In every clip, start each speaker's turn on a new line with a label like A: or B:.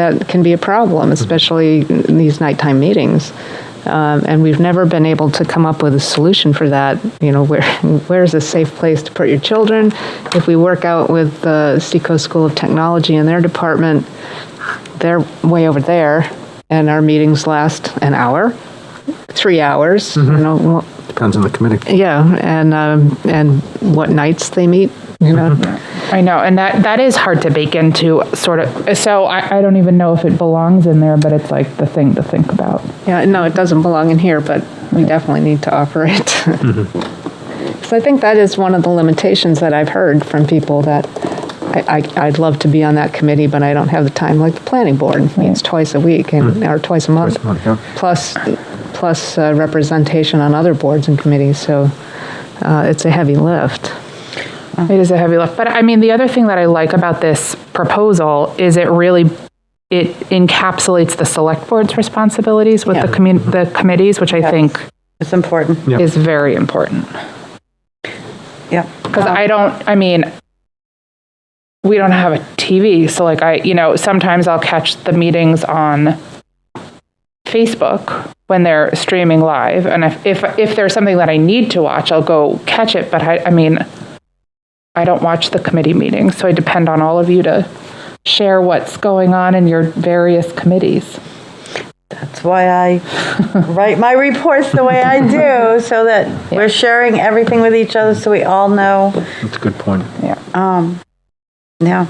A: That can be a problem, especially in these nighttime meetings. Um, and we've never been able to come up with a solution for that. You know, where where's a safe place to put your children? If we work out with the Seacoast School of Technology and their department, they're way over there, and our meetings last an hour, three hours. You know, wh-
B: Depends on the committee.
A: yeah, and um, and what nights they meet. You know,
C: I know, and that that is hard to bake into sort of. So I, I don't even know if it belongs in there, but it's like the thing to think about.
A: Yeah, no, it doesn't belong in here, but we definitely need to offer it.
B: Mm-hmm.
A: So I think that is one of the limitations that I've heard from people that I, I, I'd love to be on that committee, but I don't have the time. Like the planning board meets twice a week and, or twice a month.
B: Mm-hmm. Twice a month, yeah.
A: Plus, plus uh, representation on other boards and committees, so uh, it's a heavy lift.
C: It is a heavy lift, but I mean, the other thing that I like about this proposal is it really it encapsulates the select board's responsibilities with the
D: Yeah.
C: commun- the committees, which I think
D: It's important.
B: Yeah.
C: is very important.
D: Yeah.
C: because I don't. I mean, we don't have a TV, so like I, you know, sometimes I'll catch the meetings on Facebook when they're streaming live, and if if, if there's something that I need to watch, I'll go catch it. But I, I mean, I don't watch the committee meetings, so I depend on all of you to share what's going on in your various committees.
D: That's why I write my reports the way I do, so that we're sharing everything with each other, so we all know. Um,
B: That's a good point.
D: Yeah,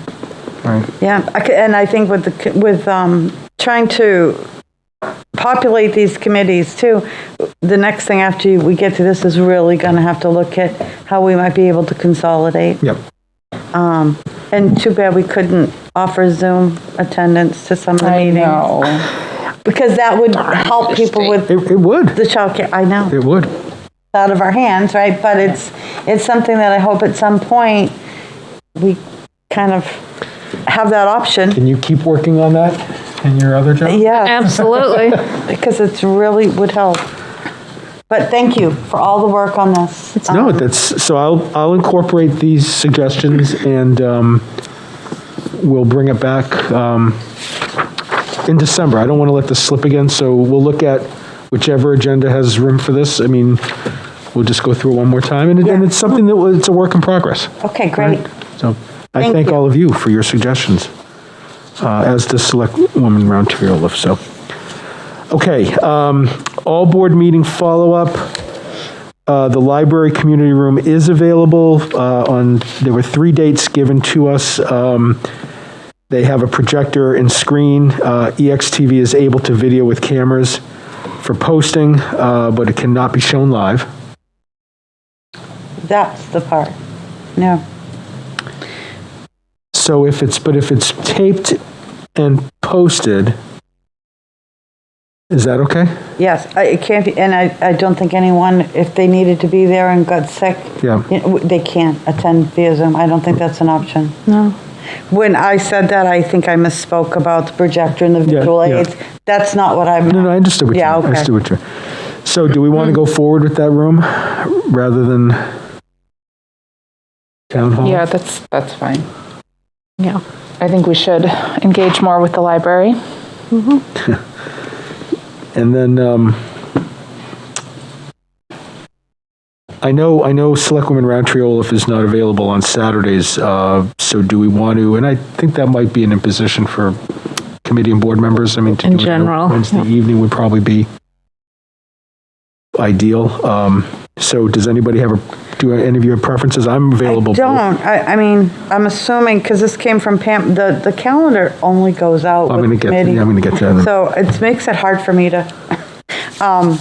B: Right.
D: yeah. I c- And I think with the, c- with, um, trying to populate these committees too, the next thing after we get to this is really gonna have to look at how we might be able to consolidate.
B: Yep.
D: And too bad we couldn't offer Zoom attendance to some of the
C: I
D: meetings.
C: know.
D: Because that would help people with
B: It, it would.
D: the childcare, I know.
B: It would.
D: out of our hands, right? But it's, it's something that I hope at some point, we kind of have that option.
B: Can you keep working on that in your other job?
D: Yeah,
A: Absolutely.
D: because it's really would help. But thank you for all the work on this.
B: No,
D: Um,
B: that's, so I'll, I'll incorporate these suggestions and um, we'll bring it back um, in December. I don't want to let this slip again, so we'll look at whichever agenda has room for this. I mean, we'll just go through it one more time, and it- and
D: Yeah.
B: it's something that, was- it's a work in progress.
D: Okay, great.
B: So I
D: Thank
B: thank
D: you.
B: all of you for your suggestions, uh, as the select woman round table lift, so. Okay, um, all board meeting follow-up. Uh, The library community room is available uh, on, there were three dates given to us. Um, They have a projector and screen. Uh, EXTV is able to video with cameras for posting, uh, but it cannot be shown live.
D: That's the part. No,
B: So if it's, but if it's taped and posted, is that okay?
D: yes, I- it can't be, and I, I don't think anyone, if they needed to be there and got sick,
B: Yeah.
D: you know, they can't attend via Zoom. I don't think that's an option.
A: No.
D: When I said that, I think I misspoke about the projector and the visual
B: yeah.
D: aids. That's not what I'm.
B: No, no, I understood what you,
D: Yeah,
B: I
D: okay.
B: understood what you. So do we want to go forward with that room rather than town hall?
C: Yeah, that's that's fine.
A: Yeah.
C: I think we should engage more with the library.
B: And then, um, I know, I know Selectwoman Roundtree Olaf is not available on Saturdays, uh, so do we want to, and I think that might be an imposition for committee and board members, I mean, to
A: In
B: do it on a
A: general,
B: Wednesday evening would probably be ideal. Um, so does anybody have a, do any of you have preferences? I'm available. both.
D: I don't. I, I mean, I'm assuming, because this came from Pam, the, the calendar only goes out
B: I'm
D: with
B: going to get, I'm
D: committee.
B: going to get to that.
D: So it makes it hard for me to, um,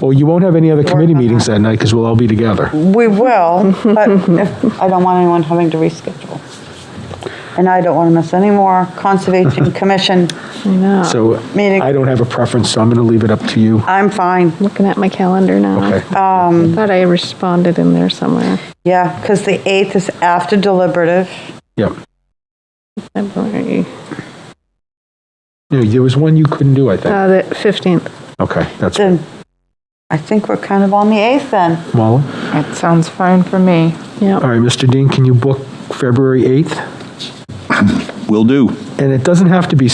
B: Well, you won't have any other committee
D: on
B: meetings that night because we'll all be together.
D: we will, but if- I don't want anyone having to reschedule. And I don't want to miss any more Conservation Commission.
B: So
D: Uh, Meeting.
B: I don't have a preference, so I'm going to leave it up to you.
D: I'm fine. Um,
A: Looking at my calendar now.
B: Okay.
A: I thought I responded in there somewhere.
D: Yeah, because the 8th is after deliberative.
B: Yep.
A: February,
B: No, there was one you couldn't do, I think.
A: uh, the 15th.
B: Okay, that's,
D: Then I think we're kind of on the 8th then.
B: Molly?
C: That sounds fine for me.
A: Yeah.
B: All right, Mr. Dean, can you book February 8th?
E: Will do.
B: And it doesn't have to be